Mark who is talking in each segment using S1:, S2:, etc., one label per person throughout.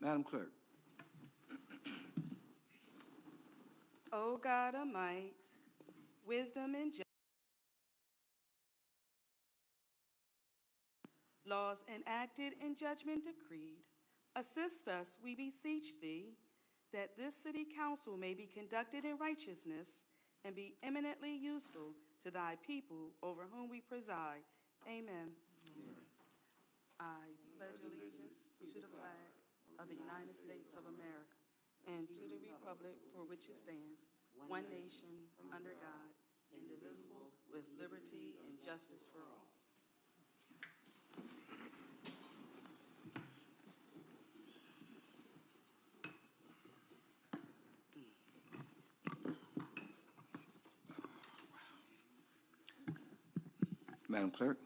S1: Madam Clerk.
S2: O God of might, wisdom and justice, laws enacted and judgment decreed, assist us, we beseech thee, that this city council may be conducted in righteousness and be eminently useful to thy people over whom we preside. Amen. I pledge allegiance to the flag of the United States of America and to the republic for which it stands, one nation, under God, indivisible, with liberty and justice for all.
S1: Madam Clerk.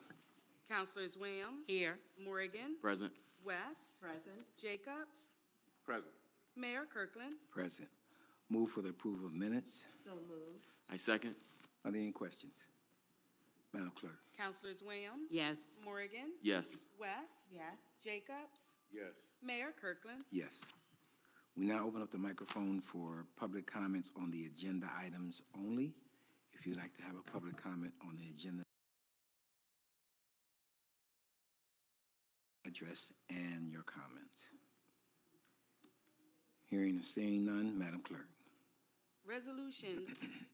S2: Councilors Williams.
S3: Here.
S2: Morgan.
S4: Present.
S2: West.
S3: Present.
S2: Jacobs.
S5: Present.
S2: Mayor Kirkland.
S1: Present. Move for the approval of minutes.
S3: So moved.
S4: I second.
S1: Are there any questions? Madam Clerk.
S2: Councilors Williams.
S3: Yes.
S2: Morgan.
S4: Yes.
S2: West.
S3: Yes.
S2: Jacobs.
S5: Yes.
S2: Mayor Kirkland.
S1: Yes. We now open up the microphone for public comments on the agenda items only. If you'd like to have a public comment on the agenda address and your comments. Hearing or seeing none, Madam Clerk.
S2: Resolution,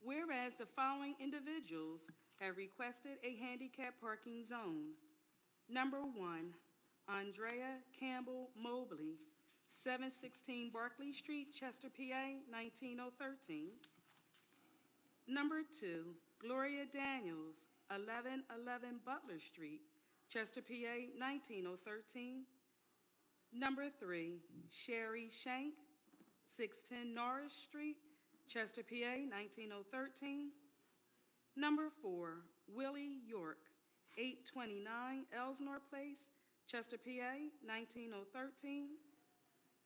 S2: whereas the following individuals have requested a handicap parking zone. Number one, Andrea Campbell Mobley, seven sixteen Barclay Street, Chester, PA, nineteen oh thirteen. Number two, Gloria Daniels, eleven eleven Butler Street, Chester, PA, nineteen oh thirteen. Number three, Sherry Shank, 610 Norris Street, Chester, PA, 19013. Number four, Willie York, 829 Elsnore Place, Chester, PA, 19013.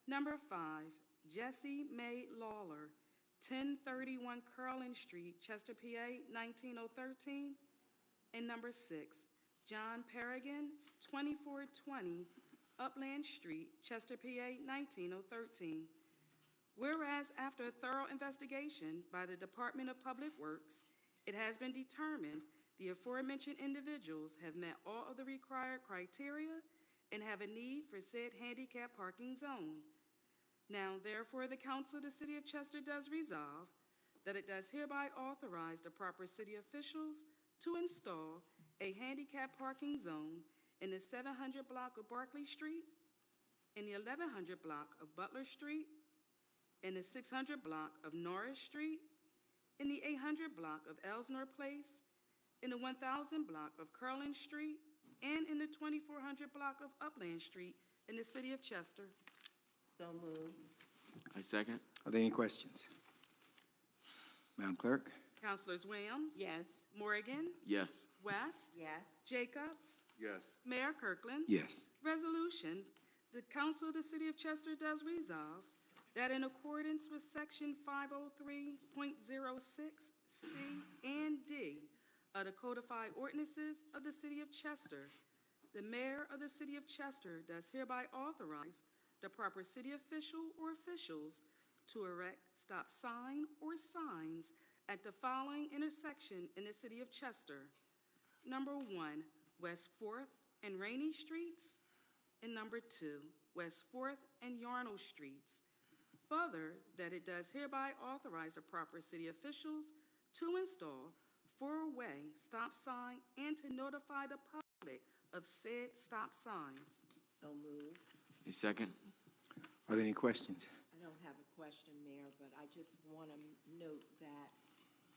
S2: Number five, Jessie Mae Lawler, 1031 Curlin Street, Chester, PA, 19013. And number six, John Perrigan, 2420 Upland Street, Chester, PA, 19013. Whereas after a thorough investigation by the Department of Public Works, it has been determined the aforementioned individuals have met all of the required criteria and have a need for said handicap parking zone. Now therefore, the council of the city of Chester does resolve that it does hereby authorize the proper city officials to install a handicap parking zone in the 700 block of Barclay Street, in the 1100 block of Butler Street, in the 600 block of Norris Street, in the 800 block of Elsnore Place, in the 1000 block of Curlin Street, and in the 2400 block of Upland Street in the city of Chester.
S3: So moved.
S4: I second.
S1: Are there any questions? Madam Clerk?
S2: Councilors Williams?
S3: Yes.
S2: Morgan?
S4: Yes.
S2: West?
S3: Yes.
S2: Jacobs?
S5: Yes.
S2: Mayor Kirkland?
S1: Yes.
S2: Resolution, the Council of the City of Chester does resolve that in accordance with Section 503.06C and D of the codified ordinances of the City of Chester, the mayor of the City of Chester does hereby authorize the proper city official or officials to erect stop sign or signs at the following intersection in the City of Chester. Number one, West Fourth and Rainey Streets. And number two, West Fourth and Yarnell Streets. Further, that it does hereby authorize the proper city officials to install four-way stop sign and to notify the public of said stop signs.
S3: So moved.
S4: I second.
S1: Are there any questions?
S3: I don't have a question, Mayor, but I just want to note that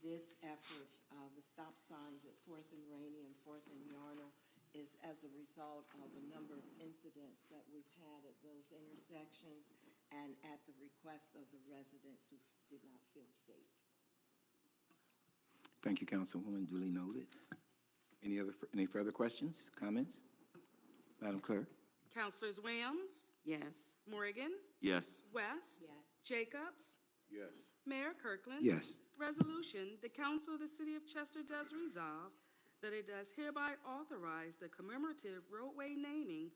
S3: this effort, uh, the stop signs at Fourth and Rainy and Fourth and Yarnell is as a result of a number of incidents that we've had at those intersections and at the request of the residents who did not feel safe.
S1: Thank you, Councilwoman, duly noted. Any other, any further questions, comments? Madam Clerk?
S2: Councilors Williams,
S3: Yes.
S2: Morgan,
S4: Yes.
S2: West,
S3: Yes.
S2: Jacobs,
S5: Yes.
S2: Mayor Kirkland.
S1: Yes.
S2: Resolution, the Council of the City of Chester does resolve that it does hereby authorize the commemorative roadway naming